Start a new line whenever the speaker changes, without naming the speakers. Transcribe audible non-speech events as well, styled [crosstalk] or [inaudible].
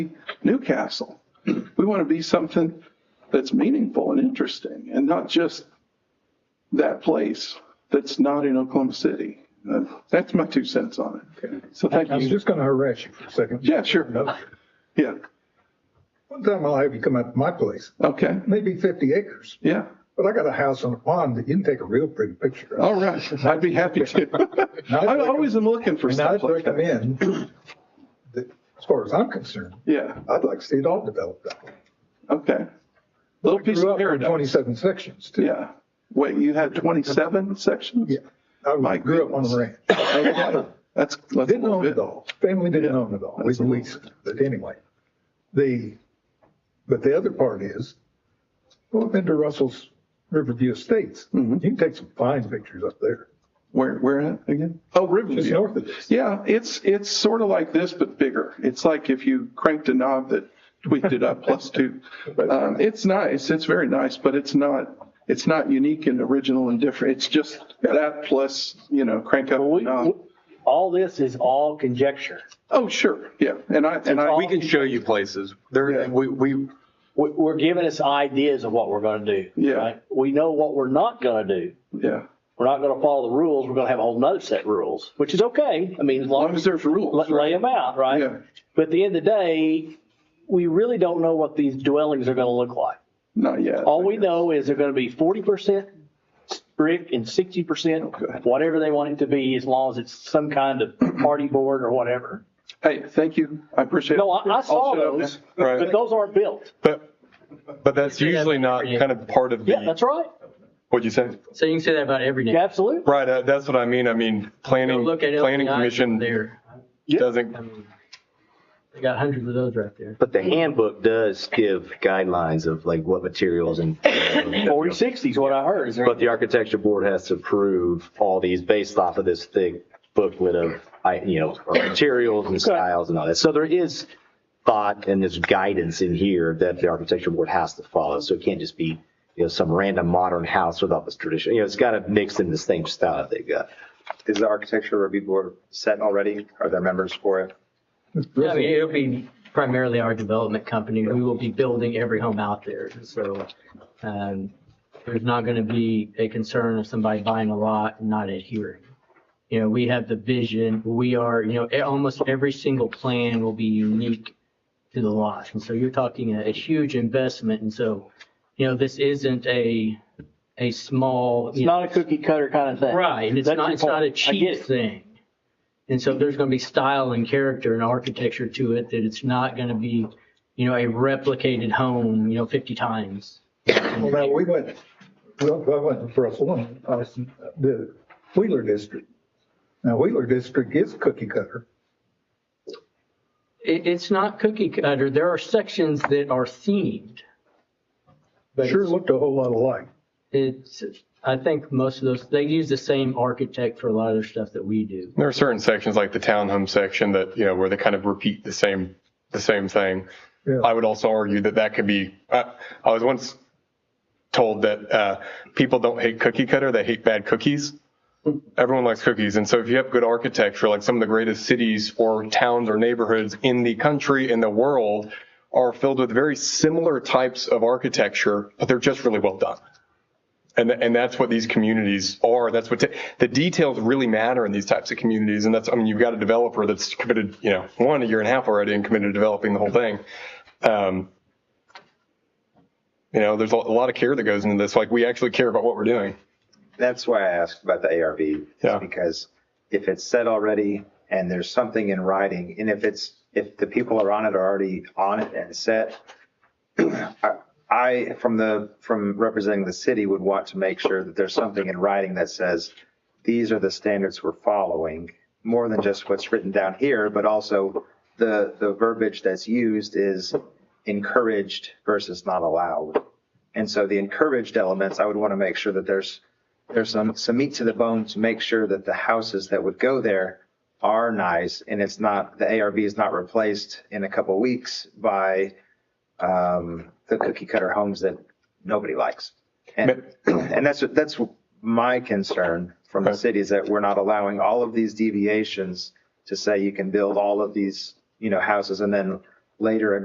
Newcastle. We want to be something that's meaningful and interesting and not just that place that's not in Oklahoma City. Uh, That's my two cents on it. So thank
I was
you.
just going to harass you for a second.
Yeah, sure.
No.
Yeah,
One time I'll have you come out to my place,
okay,
maybe 50 acres,
yeah.
but I got a house on a pond that you can take a real pretty picture of.
All right, I'd be happy
[laughs]
to. I always am looking for
And I'd
stuff like that.
recommend, that, as far as I'm concerned,
Yeah,
I'd like to see it all developed that way.
okay. Little
I
piece
grew
of
up in
paradise.
27 sections too.
Yeah. Wait, you had 27 sections?
Yeah. I
My
grew up on a ranch.
Okay. That's, that's a
Didn't
little
own
bit.
it all. Family didn't
Yeah,
own it all. We
that's a little
leased it. But anyway, the, but the other part is, well, I've been to Russell's Riverview Estates. You can take some fine pictures up there.
Where, where at again? Oh,
Just
Riverview.
north of this.
Yeah, it's, it's sort of like this, but bigger. It's like if you cranked a knob that tweaked it up plus two.
[laughs]
Um, it's nice, it's very nice, but it's not, it's not unique and original and different. It's just that plus, you know, crank up a
We-
knob.
All this is all conjecture.
Oh, sure, yeah. And I, and I,
all-
We can show you places.
Yeah.
There, we, we,
We- We're giving us ideas of what we're going to do.
Yeah.
right? We know what we're not going to do.
yeah.
We're not going to follow the rules. We're going to have a whole nother set of rules, which is okay. I mean, as
As
long
long as
as
there's rules,
let
right?
lay them out,
Yeah.
right? But at the end of the day, we really don't know what these dwellings are going to look like.
Not yet.
All we know is they're going to be forty percent brick and sixty percent,
Okay.
whatever they want it to be, as long as it's some kind of party board or whatever.
Hey, thank you. I appreciate it.
No, I, I saw
I'll shut up
those,
now.
Right.
but those aren't built.
but, but that's usually not kind of part of
Yeah,
the,
that's right.
what'd you say?
So you can say that about every
Yeah,
neighborhood.
absolutely.
Right, uh, that's what I mean. I mean, planning,
Look at
planning
LPI
commission
there.
doesn't,
I mean, They got hundreds of those right there.
But the handbook does give guidelines of like what materials and,
Forty, sixty is what I heard.
but the architecture board has to approve all these based off of this thick booklet of, I, you know, or materials and styles and all that. So there is thought and there's guidance in here that the architecture board has to follow. So it can't just be, you know, some random modern house without this tradition. You know, it's got to mix in the same style that they got.
Is the architecture review board set already? Are there members for it?
I mean, it'll be primarily our development company. We will be building every home out there. So, um, there's not going to be a concern of somebody buying a lot and not adhering. You know, we have the vision, we are, you know, e- almost every single plan will be unique to the lot. And so you're talking a, a huge investment. And so, you know, this isn't a, a small.
It's not a cookie cutter kind of thing.
Right, and it's
That's
not,
your
it's not a
point. I get
cheap
it.
thing. And so there's gonna be style and character and architecture to it, that it's not gonna be, you know, a replicated home, you know, fifty times.
Well, now, we went, well, I went to Russell and I was in the Wheeler District. Now, Wheeler District is cookie cutter.
It, it's not cookie cutter, there are sections that are themed. But
Sure
it's-
looked a whole lot alike.
It's, I think most of those, they use the same architect for a lot of the stuff that we do.
there are certain sections like the townhome section that, you know, where they kind of repeat the same, the same thing.
Yeah.
I would also argue that that could be, I, I was once told that uh, people don't hate cookie cutter, they hate bad cookies. Everyone likes cookies. And so if you have good architecture, like some of the greatest cities or towns or neighborhoods in the country, in the world, are filled with very similar types of architecture, but they're just really well done. And, th- and that's what these communities are. That's what, ta- the details really matter in these types of communities. And that's, I mean, you've got a developer that's committed, you know, one, a year and a half already and committed to developing the whole thing. Um, You know, there's a a lot of care that goes into this. Like, we actually care about what we're doing.
That's why I asked about the ARB.
Yeah.
Because if it's set already and there's something in writing, and if it's, if the people are on it are already on it and set, [clears throat] I- I, from the, from representing the city, would want to make sure that there's something in writing that says, these are the standards we're following, more than just what's written down here, but also the, the verbiage that's used is encouraged versus not allowed. And so the encouraged elements, I would want to make sure that there's, there's some, some meat to the bone to make sure that the houses that would go there are nice and it's not, the ARB is not replaced in a couple weeks by, um, the cookie cutter homes that nobody likes. And, [clears throat] and that's, that's my concern from the
Okay.
city is that we're not allowing all of these deviations to say you can build all of these, you know, houses and then later